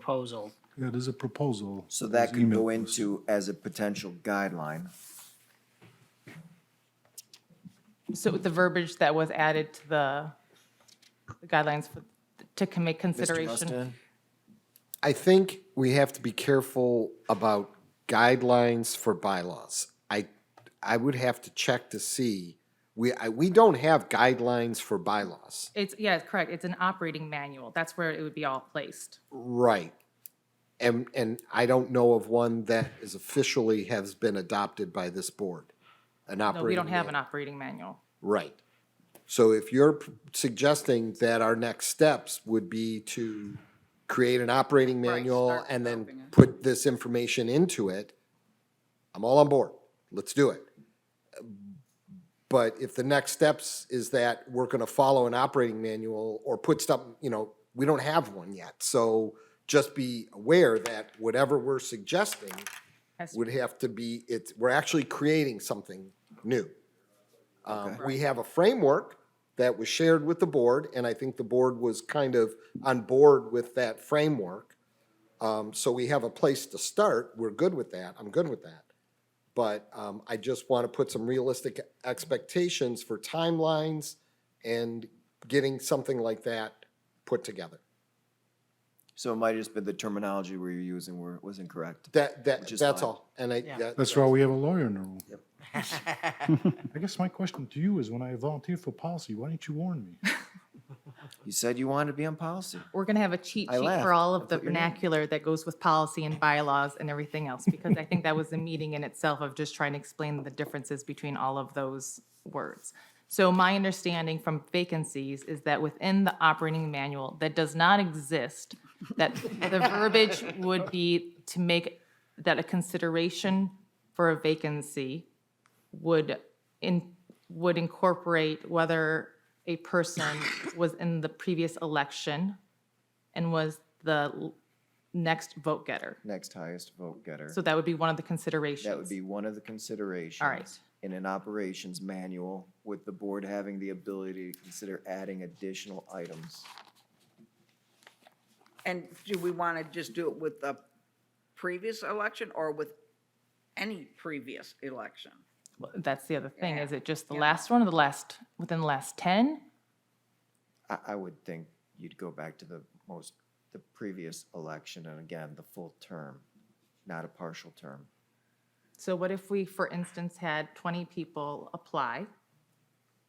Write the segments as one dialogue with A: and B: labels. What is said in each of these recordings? A: proposal.
B: Yeah, there's a proposal.
C: So that
B: There's
C: could
B: email
C: go
B: to us.
C: into as a potential guideline.
D: So with the verbiage that was added to the the guidelines for- to commit
C: Mr.
D: consideration.
C: Mustin?
E: I think we have to be careful about guidelines for bylaws. I, I would have to check to see, we, I, we don't have guidelines for bylaws.
D: It's, yeah, it's correct. It's an operating manual. That's where it would be all placed.
E: Right. And, and I don't know of one that is officially has been adopted by this board, an
D: No,
E: operating.
D: we don't have
E: manual.
D: an operating manual.
E: Right. So if you're p- suggesting that our next steps would be to create an operating manual and then put this information into it, I'm all on board. Let's do it. But if the next steps is that we're gonna follow an operating manual or put stuff, you know, we don't have one yet. So just be aware that whatever we're suggesting
D: Has to
E: would have to be, it's, we're actually creating something new. Um, We have a framework that was shared with the board, and I think the board was kind of on board with that framework. Um, So we have a place to start, we're good with that, I'm good with that. But um, I just want to put some realistic expectations for timelines and getting something like that put together.
C: So it might have just been the terminology we were using were, was incorrect.
E: That, that,
C: Which is
E: that's
C: fine.
E: all, and I, that-
B: That's why we have a lawyer in the room. I guess my question to you is when I volunteer for policy, why didn't you warn me?
C: You said you wanted to be on policy.
D: We're going to have a cheat
C: I
D: sheet
C: laughed.
D: for all of the
C: put your name.
D: vernacular that goes with policy and bylaws and everything else, because I think that was a meeting in itself of just trying to explain the differences between all of those words. So my understanding from vacancies is that within the operating manual that does not exist, that the verbiage would be to make that a consideration for a vacancy would in, would incorporate whether a person was in the previous election and was the l- next vote getter.
C: Next highest vote getter.
D: So that would be one of the considerations.
C: That would be one of the considerations. In an operations manual with the board having the ability to consider adding additional items.
F: And do we want to just do it with the previous election or with any previous election?
D: Well, That's the other thing. Is it just the
F: Yeah.
D: last one or the last, within the last 10?
C: I, I would think you'd go back to the most, the previous election and again, the full term, not a partial term.
D: So what if we, for instance, had 20 people apply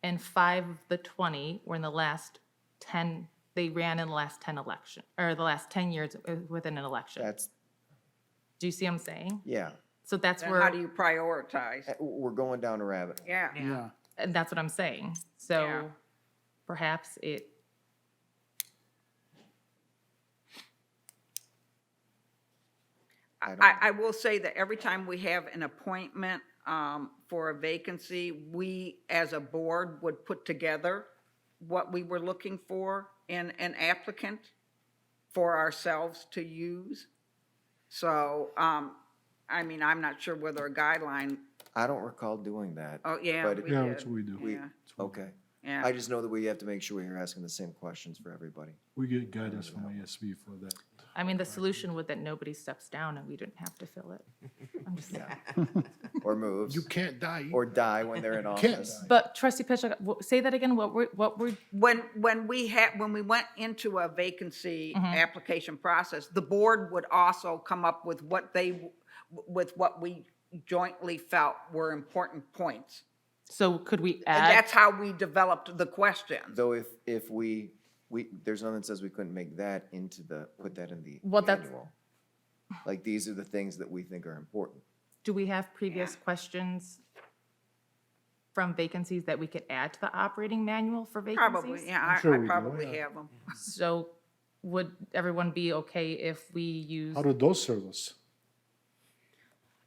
D: and five of the 20 were in the last 10, they ran in the last 10 election, or the last 10 years uh, within an election?
C: That's,
D: Do you see what I'm saying?
C: yeah,
D: So that's
F: And how
D: where,
F: do you prioritize?
C: Eh, we're going down a rabbit. hole.
F: Yeah.
A: Yeah.
D: and that's what I'm saying.
F: Yeah.
D: So perhaps it,
C: I
F: I,
C: don't-
F: I will say that every time we have an appointment um, for a vacancy, we, as a board, would put together what we were looking for in an applicant for ourselves to use. So, um, I mean, I'm not sure whether a guideline,
C: I don't recall doing that.
F: oh, yeah,
C: But-
F: we
B: Yeah, that's
F: did,
B: what we do.
F: yeah,
C: Okay.
F: yeah.
C: I just know that we have to make sure we're asking the same questions for everybody.
B: We get guidance from ASB for that.
D: I mean, the solution would that nobody steps down and we didn't have to fill it. I'm just saying.
C: Or moves,
B: can't die.
C: or die when they're in office.
D: But trustee Petchak, wh- say that again, what were, what were,
F: When, when we had, when we went into a vacancy application process, the board would also come up with what they, with what we jointly felt were important points.
D: so could we
F: And
D: add?
F: Uh, that's how we developed the questions.
C: Though if, if we, we, there's nothing that says we couldn't make that into the, put that in the
D: Well, that's-
C: manual. Like, these are the things that we think are important.
D: Do we have previous questions from vacancies that we could add to the operating manual for vacancies?
F: Probably, yeah, I,
B: sure
F: I
B: we do,
F: probably
B: yeah.
F: have them.
D: So would everyone be okay if we use,
B: How do those serve us?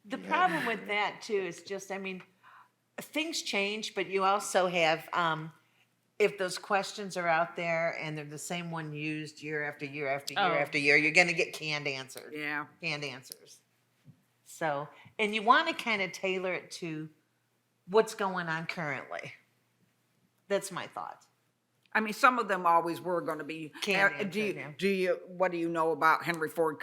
G: The problem with that too is just, I mean, things change, but you also have, um, if those questions are out there and they're the same one used year after year after year
D: Oh.
G: after year, you're gonna get canned answers.
F: Yeah,
G: Canned answers. So, and you wanna kinda tailor it to what's going on currently. That's my thought.
F: I mean, some of them always were going to be.
G: Can't
F: uh, Do
G: answer,
F: you,
G: yeah.
F: uh, do you, what do you know about Henry Ford